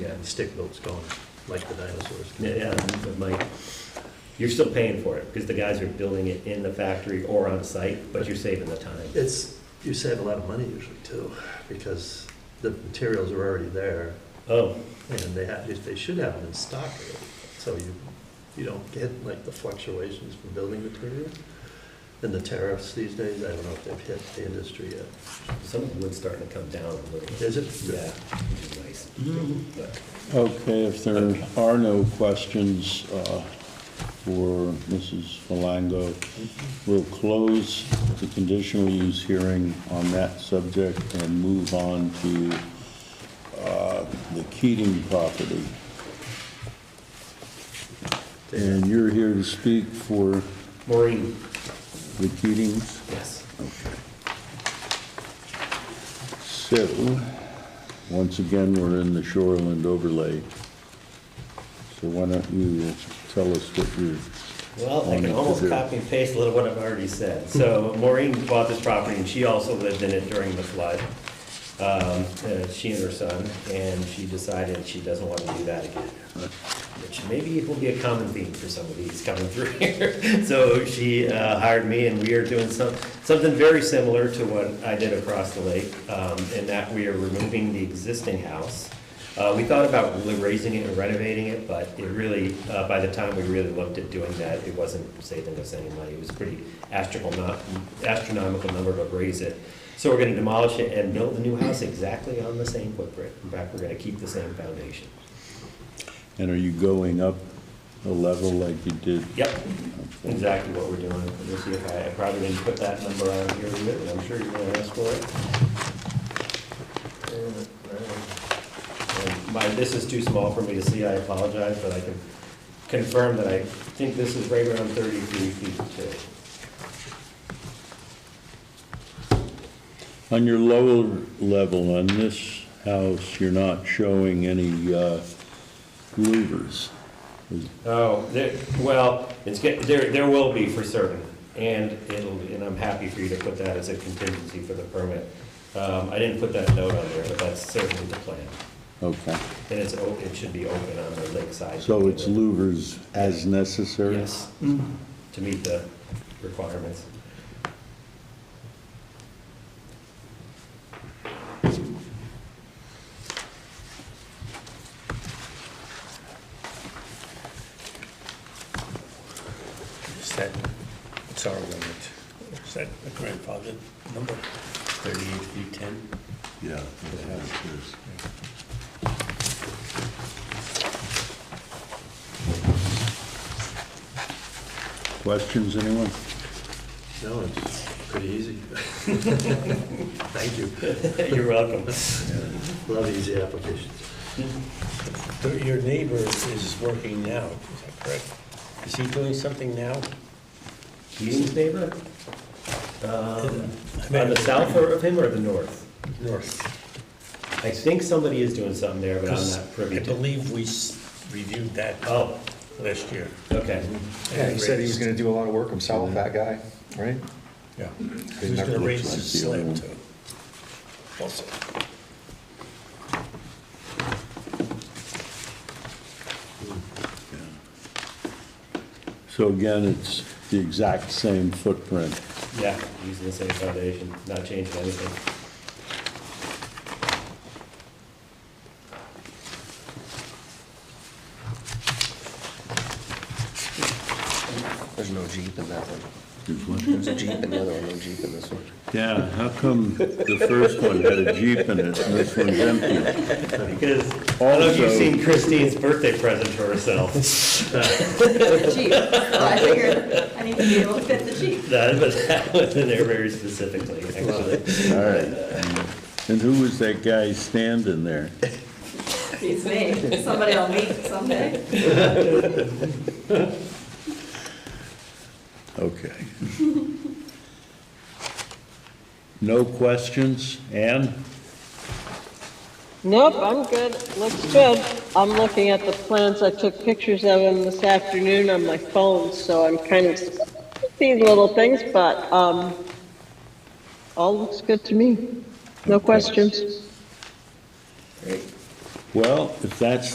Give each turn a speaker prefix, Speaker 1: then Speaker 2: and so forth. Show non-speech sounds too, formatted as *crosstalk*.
Speaker 1: Yeah, the stick boat's going, like the dinosaurs.
Speaker 2: Yeah, yeah, but Mike, you're still paying for it, because the guys are building it in the factory or on site, but you're saving the time.
Speaker 1: It's, you save a lot of money usually too, because the materials are already there,
Speaker 2: Oh,
Speaker 1: and they have, they should have them in stock already. So you, you don't get like the fluctuations from building material. And the tariffs these days, I don't know if they've hit the industry yet.
Speaker 2: some of the wood's starting to come down a little bit.
Speaker 1: Is it?
Speaker 2: Yeah, which is nice. But
Speaker 3: Okay, if there are no questions uh, for Mrs. Malango, we'll close the conditional use hearing on that subject and move on to uh, the Keating property. And you're here to speak for
Speaker 2: Maureen,
Speaker 3: the Keatings?
Speaker 2: yes.
Speaker 3: So, once again, we're in the shoreland overlay. So why don't you tell us what you're
Speaker 2: Well, I can
Speaker 3: wanting to
Speaker 2: almost
Speaker 3: do?
Speaker 2: copy and paste a little what I've already said. So Maureen bought this property, and she also lived in it during the flood. Um, uh, She and her son, and she decided she doesn't want to do that again. Which maybe will be a common theme for some of these coming through *laughs* here. So she uh, hired me, and we are doing some, something very similar to what I did across the lake, um, in that we are removing the existing house. Uh, We thought about really raising it and renovating it, but it really, uh, by the time we really looked at doing that, it wasn't saving us any money. It was a pretty astronomical, astronomical number to raise it. So we're gonna demolish it and build the new house exactly on the same footprint. In fact, we're gonna keep the same foundation.
Speaker 3: And are you going up a level like you did?
Speaker 2: Yep, exactly what we're doing. Let me see if I, I probably didn't put that number on here, but I'm sure you're gonna ask for it. And uh, My, this is too small for me to see, I apologize, but I can confirm that I think this is right around thirty-three feet too.
Speaker 3: On your lower level, on this house, you're not showing any uh, louvers.
Speaker 2: Oh, there, well, it's, get- there, there will be for certain, and it'll, and I'm happy for you to put that as a contingency for the permit. Um, I didn't put that note on there, but that's certainly the plan.
Speaker 3: Okay,
Speaker 2: And it's, o- it should be open on the lakeside.
Speaker 3: so it's louvers as necessary?
Speaker 2: Yes, to meet the requirements.
Speaker 4: Is that, it's our limit, is that a grandfathered number? Thirty-eight feet ten?
Speaker 3: Yeah. that's what it is. Questions, anyone?
Speaker 1: No, it's pretty
Speaker 2: *laughs*
Speaker 1: easy. Thank you.
Speaker 2: You're welcome.
Speaker 1: Love easy applications.
Speaker 4: Your neighbor is working now, is that correct? Is he doing something now?
Speaker 2: Keating's neighbor? Um,
Speaker 4: I mean-
Speaker 2: On the south or- of him or the north?
Speaker 4: North.
Speaker 2: I think somebody is doing something there, but I'm not
Speaker 4: I
Speaker 2: privy to.
Speaker 4: believe we s- reviewed that
Speaker 2: Oh,
Speaker 4: last year.
Speaker 2: okay.
Speaker 5: Yeah, he said he was gonna do a lot of work himself, that guy, right?
Speaker 4: Yeah. He was gonna raise his slab too. Also,
Speaker 3: So again, it's the exact same footprint.
Speaker 2: Yeah, using the same foundation, not changing anything.
Speaker 5: There's no Jeep in that one. There's a Jeep in the other one, no Jeep in this one.
Speaker 3: Yeah, how come the first one had a Jeep in it and this one's empty?
Speaker 2: Because, I don't know if you've
Speaker 3: Also-
Speaker 2: seen Christine's birthday present for herself. *laughs*
Speaker 6: the Jeep. So I figured I need to be able to fit the Jeep.
Speaker 2: That, but that was in there very specifically, actually.
Speaker 3: All right. And who was that guy standing there?
Speaker 6: It's me. Somebody will meet someday.
Speaker 3: Okay. No questions? Ann?
Speaker 7: Nope, I'm good. Looks good. I'm looking at the plans. I took pictures of them this afternoon on my phone, so I'm kind of seeing little things, but, um, all looks good to me. No questions.
Speaker 3: Well, if that's